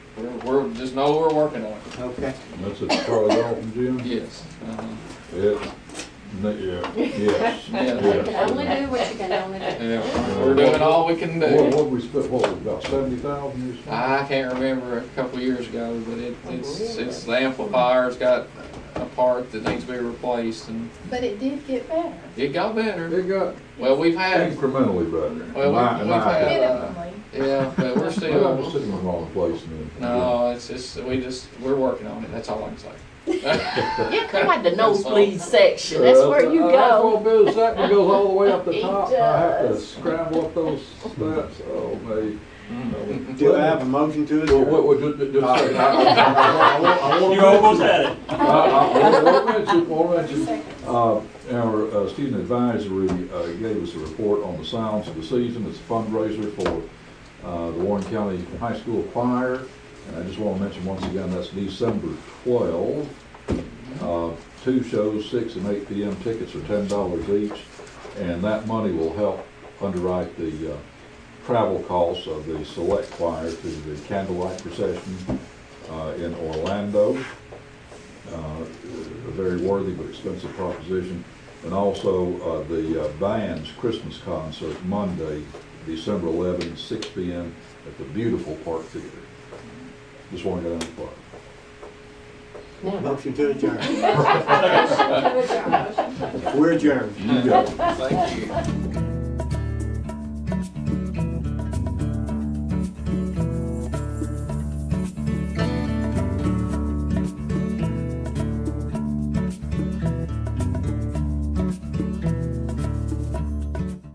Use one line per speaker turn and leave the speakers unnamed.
We're, we're, just know we're working on it.
Okay.
That's at Charlie Dalton Gym?
Yes. uh-huh.
Yeah. No, Yeah, yes.
Yeah.
You can only do what you can only do.
Yeah, we're doing all we can
What,
do.
what we spent, what, about seventy thousand or something?
I can't remember a couple years ago, but it, it's, it's the amplifier's got a part that needs to be replaced and
But it did get better,
it got better.
It got
Well, we've had,
incrementally better.
Well, we-
My-
we've
my-
had- uh,
minimally.
yeah, but we're
We're not
Oh, still,
sitting in the wrong place now.
no, it's just, we just, we're working on it, that's all I can say.
You had the nosebleed section, that's where you
Uh, That
go.
little bit of second goes all the way up the
It
top. I have to
does.
scramble up those steps. Oh, me.
Mm.
Do I have a motion to
Well,
adjourn?
what, what, just, just a second. I- I- I- I want- I want-
You almost had it.
I- I want to mention, want to mention,
Second.
Uh, Our uh, student advisory uh, gave us a report on the sounds of the season. It's a fundraiser for uh, the Warren County High School Choir. And I just want to mention once again, that's December 12. Uh, Two shows, 6 and 8 p.m. Tickets are $10 each. And that money will help underwrite the uh, travel costs of the select choir to the candlelight procession uh, in Orlando uh, a very worthy but expensive proposition. And also uh, the uh, band's Christmas concert Monday, December 11, 6 p.m. at the beautiful Park Theater. Just want to get out of the park.
Motion to adjourn. We're adjourned.
You got it.
Thank you.